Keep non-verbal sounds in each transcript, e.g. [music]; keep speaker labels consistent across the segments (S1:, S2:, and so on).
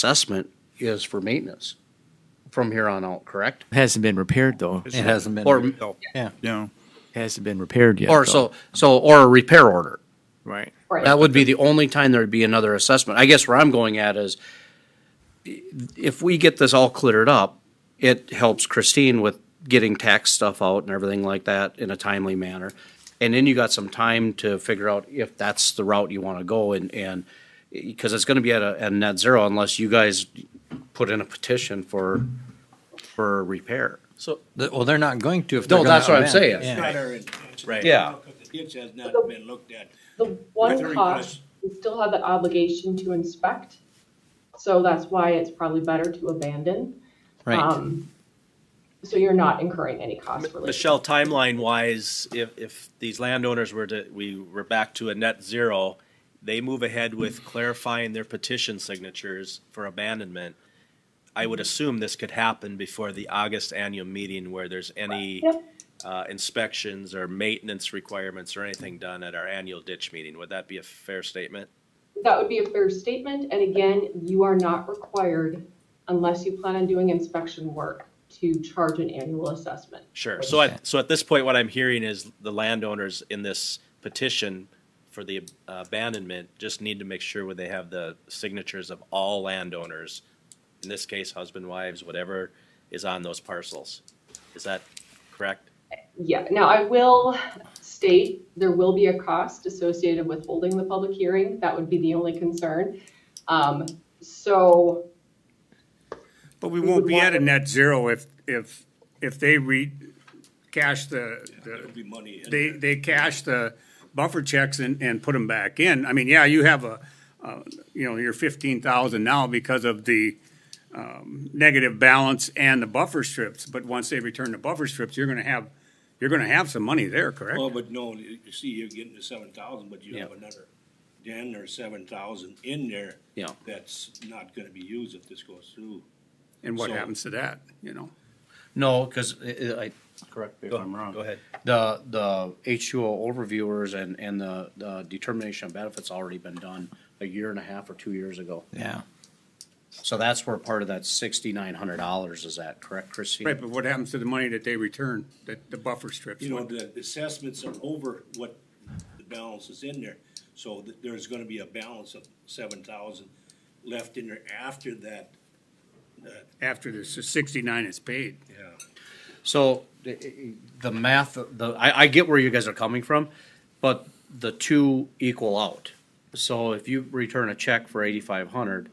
S1: assessment is for maintenance from here on out, correct?
S2: Hasn't been repaired though.
S3: It hasn't been.
S1: Or-
S3: rebuilt. Yeah.
S4: No.
S2: Hasn't been repaired yet.
S1: Or
S2: though.
S1: so, so, or a repair order.
S2: Right.
S1: That would be the only time there'd be another assessment. I guess where I'm going at is if we get this all cleared up, it helps Christine with getting tax stuff out and everything like that in a timely manner. And then you got some time to figure out if that's the route you want to go and, and, because it's going to be at a, at net zero unless you guys put in a petition for, for repair.
S3: So, th- well, they're not going to if they're
S1: No,
S3: gonna.
S1: that's what I'm
S3: amend.
S1: saying.
S3: Yeah.
S5: gutter and ditch.
S3: Right.
S1: Yeah.
S5: Because the ditch has not been looked at.
S6: The
S5: With the
S6: one
S5: request.
S6: cost, we still have the obligation to inspect, so that's why it's probably better to abandon.
S3: Right.
S6: Um, So you're not incurring any cost
S7: M-
S6: related.
S7: Michelle, timeline wise, if, if these landowners were to, we were back to a net zero, they move ahead with clarifying their petition signatures for abandonment. I would assume this could happen before the August annual meeting where there's any
S6: Yep.
S7: uh, inspections or maintenance requirements or anything done at our annual ditch meeting. Would that be a fair statement?
S6: That would be a fair statement, and again, you are not required, unless you plan on doing inspection work, to charge an annual assessment.
S7: Sure. So at, so at this point, what I'm hearing is the landowners in this petition for the uh, abandonment just need to make sure where they have the signatures of all landowners, in this case, husband, wives, whatever is on those parcels. Is that correct?
S6: Yeah, now I will state there will be a cost associated with holding the public hearing. That would be the only concern. Um, So
S8: But we
S6: We
S8: won't
S6: would
S8: be
S6: want
S8: at a
S6: them-
S8: net zero if, if, if they re, cash the,
S5: There
S8: the
S5: would be money in
S8: they,
S5: there.
S8: they cash the buffer checks and, and put them back in. I mean, yeah, you have a, uh, you know, your fifteen thousand now because of the, um, negative balance and the buffer strips, but once they return the buffer strips, you're gonna have, you're gonna have some money there, correct?
S5: Well, but no, you you see, you're getting to seven thousand, but you have another ten or seven thousand in there.
S1: Yeah.
S5: That's not gonna be used if this goes through.
S8: And what
S5: so-
S8: happens to that, you know?
S1: No, because I, correct me if I'm wrong.
S7: Go ahead.
S1: The, the H two O overviewers and, and the, the determination of benefits already been done a year and a half or two years ago.
S3: Yeah.
S1: So that's where part of that sixty-nine hundred dollars is at, correct, Christine?
S8: Right, but what happens to the money that they return, that the buffer strips?
S5: You know, the assessments are over what the balance is in there. So th- there's gonna be a balance of seven thousand left in there after that. that,
S8: After the sixty-nine is paid.
S5: yeah.
S1: So i- i- the math, the, I, I get where you guys are coming from, but the two equal out. So if you return a check for eighty-five hundred,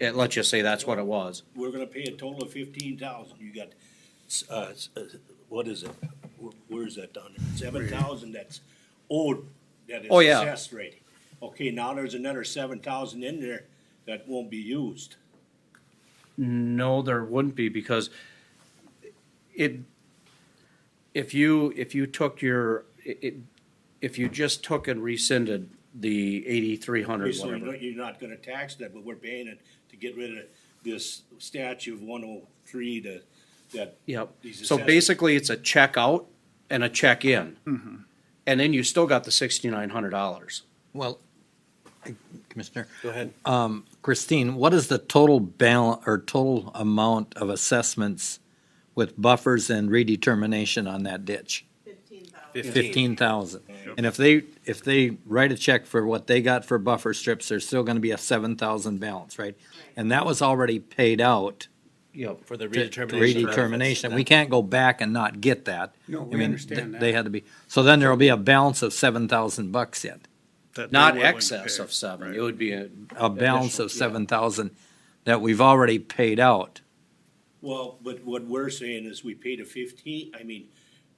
S1: it, let's just say that's what it was.
S5: We're gonna pay a total of fifteen thousand. You got, s- uh, s- uh, what is it? Wh- Where is that down there? Seven thousand that's owed, that is
S1: Oh, yeah.
S5: assessed rate. Okay, now there's another seven thousand in there that won't be used.
S1: No, there wouldn't be because it, if you, if you took your, i- i if you just took and rescinded the eighty-three hundred,
S5: So you're
S1: whatever.
S5: not- you're not gonna tax that, but we're paying it to get rid of this statute of one oh three to, that.
S1: Yep.
S5: these
S1: So
S5: assessments.
S1: basically, it's a check out and a check in.
S4: Mm-hmm.
S1: And then you still got the sixty-nine hundred dollars.
S3: Well, Commissioner, Um,
S7: Go ahead.
S3: Christine, what is the total balance or total amount of assessments with buffers and redetermination on that ditch? Fifteen thousand. And if they, if they write a check for what they got for buffer strips, there's still gonna be a seven thousand balance, right? And that was already paid out.
S1: Yep.
S7: For the
S3: to-
S7: redetermination.
S3: Redetermination. We can't go back and not get that.
S8: No,
S3: I
S8: we
S3: mean,
S8: understand
S3: th-
S8: that.
S3: They had to be, so then there'll be a balance of seven thousand bucks yet,
S4: that they
S1: Not
S4: were willing to
S1: excess
S4: pay.
S1: of seven. It would be a.
S3: a balance
S1: Additional,
S3: of
S1: yeah.
S3: seven thousand that we've already paid out.
S5: Well, but what we're saying is we paid a fifteen, I mean,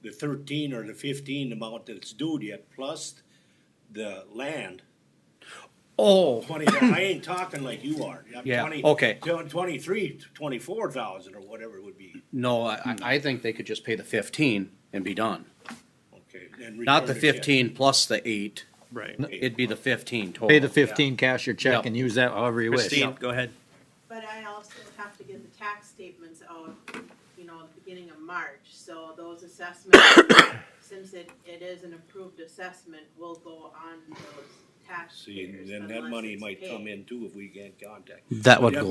S5: the thirteen or the fifteen amount that's due yet, plus the land.
S1: Oh,
S5: Twenty,
S1: [coughs]
S5: I ain't talking like you are. I'm
S1: Yeah,
S5: 20
S1: okay.
S5: tw- Twenty-three, twenty-four thousand or whatever it would be,
S1: no, I,
S4: Hmm.
S1: I- I think they could just pay the fifteen and be done.
S5: okay. and
S1: Not the
S5: return it, yeah.
S1: fifteen plus the eight.
S4: Right.
S1: It'd be the fifteen total.
S3: Pay the fifteen, cash your
S1: Oh, Yep.
S3: check and use that however you wish.
S7: Christine, go ahead.
S9: But I also have to get the tax statements out, you know, at the beginning of March, so those assessments, since it, it is an approved assessment, will go on those tax.
S5: See,
S9: payers
S5: then that
S9: unless
S5: money
S9: it's
S5: might come
S9: paid.
S5: in too if we get in contact.
S1: That would
S5: Yeah,
S1: go